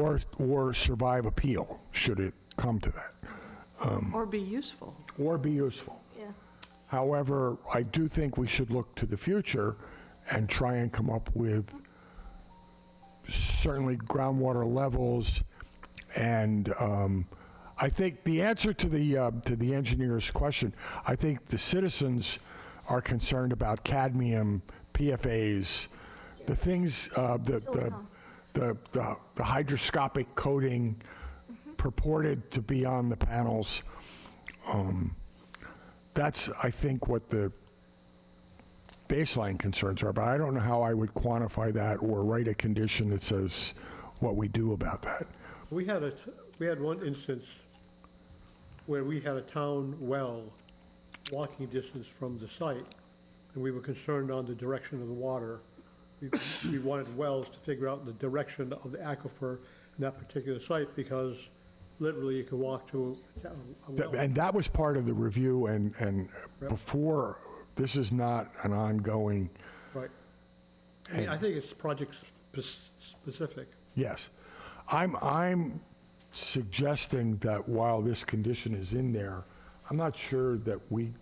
or, or survive appeal, should it come to that, Or be useful. or be useful. Yeah. However, I do think we should look to the future and try and come up with certainly groundwater levels. And um, I think the answer to the, uh, to the engineer's question, I think the citizens are concerned about cadmium, PFAS, the things, uh, the, the, the, the the hydroscopic coating purported to be on the panels. That's, I think, what the baseline concerns are, but I don't know how I would quantify that or write a condition that says what we do about that. We had a, t- we had one instance where we had a town well walking distance from the site, and we were concerned on the direction of the water. We- We wanted wells to figure out the direction of the aquifer in that particular site, because literally you could walk to a a That- well. And that was part of the review, and, and before, this is not an ongoing, Right. I mean, I think it's project-specific. yes. I'm, I'm suggesting that while this condition is in there, I'm not sure that we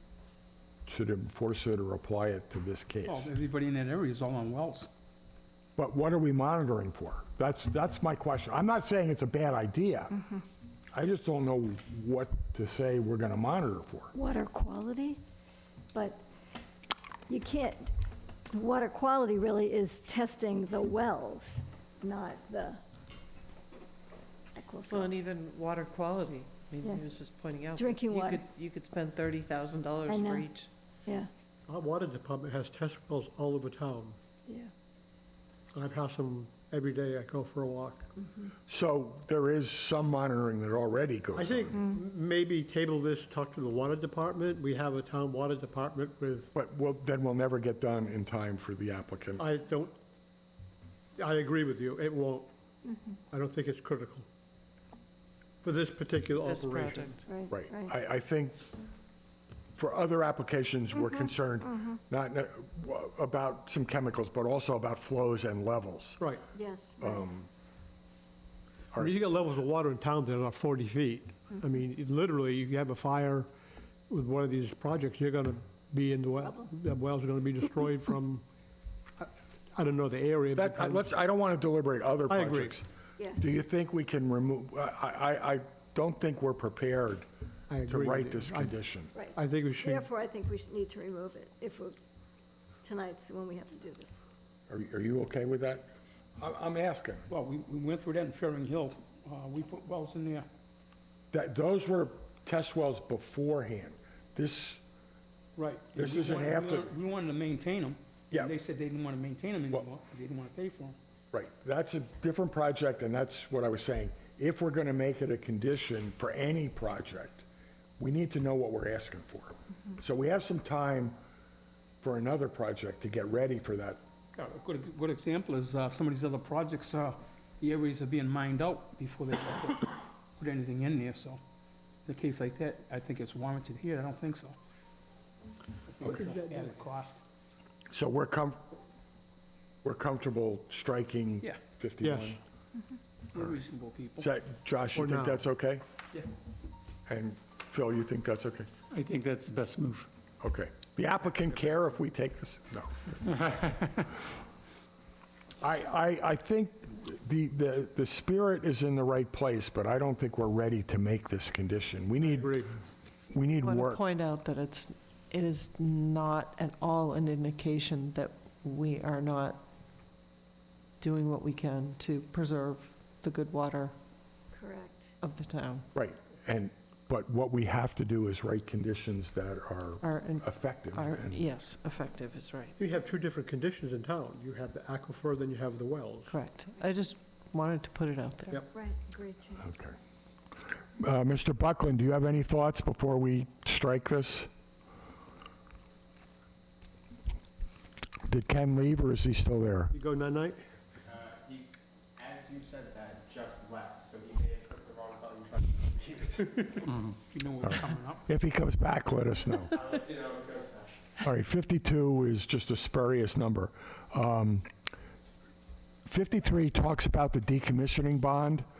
should enforce it or apply it to this case. Well, everybody in that area is all on wells. But what are we monitoring for? That's, that's my question. I'm not saying it's a bad idea. Mm-hmm. I just don't know what to say we're going to monitor for. water quality, but you can't, water quality really is testing the wells, not the Well, aquifer. and even water quality, I mean, Yeah. he was just pointing out. that Drinking you water. could- You could spend $30,000 I know. for each. Yeah, Our water department has test wells all over town. yeah. I pass them every day, I go for a walk. So there is some monitoring that already I goes on. think Mm. m- maybe table this, talk to the water department. We have a town water department with, But we'll, then we'll never get done in time for the applicant. I don't, I agree with you, it won't. Mm-hmm. I don't think it's critical for this particular This operation. project. Right, Right. right. I, I think for other applications, we're Mm-hmm. concerned not not- about some chemicals, but also about flows and levels. Right. Yes. um, I mean, you got levels of water in town that are 40 feet. Mm-hmm. I mean, it- literally, if you have a fire with one of these projects, you're going to be in the well, the wells are going to be destroyed from, I- I don't know the area. but That, I- let's, I don't want to deliberate other I agree. projects. Yeah. Do you think we can remove, I, I, I don't think we're prepared I to agree with write you. this I- condition. Right. I think we should. Therefore, I think we should need to remove it if we're, tonight's when we have to do this. Are, are you okay with that? I, I'm asking. Well, we, we went through that in Ferring Hill. Uh, we put wells in there. That, those were test wells beforehand. This, Right. This We isn't wanted- we after- wanted- We wanted to maintain them. Yeah. They said they didn't want to maintain them Well- anymore because they didn't want to pay for them. right, that's a different project, and that's what I was saying. If we're going to make it a condition for any project, we need to know what we're asking for. So we have some time for another project to get ready for that. Yeah, A good, good example is uh, some of these other projects, uh, the areas are being mined out before they put- put anything in there, so in a case like that, I think it's warranted here. I don't think so. I think it's a added cost. So we're com, we're comfortable striking Yeah. 51? Yes. We're reasonable people. Is that, Josh, you Or think not. that's okay? Yeah. And Phil, you think that's okay? I think that's the best move. Okay. The applicant care if we take this? No. I, I, I think the, the, the spirit is in the right place, but I don't think we're ready to make this condition. We need, we need I want to work. point out that it's, it is not at all an indication that we are not doing what we can to preserve the good water Correct. of the town. Right. And, but what we have to do is write conditions that are Our, in- effective. our, and- yes, effective is right, You have two different conditions in town. You have the aquifer, then you have the wells. correct. I just wanted to put it out there. Yep. Right, agreed, Jane. Okay. Uh, Mr. Buckland, do you have any thoughts before we strike this? Did Ken leave, or is he still there? You go night-night? Uh, He, as you said that, just left, so he may have put the wrong button trying to confuse. You know what's coming up. If he comes back, let us know. I'll let you know when it goes now. All right, 52 is just a spurious number. Um, 53 talks about the decommissioning bond.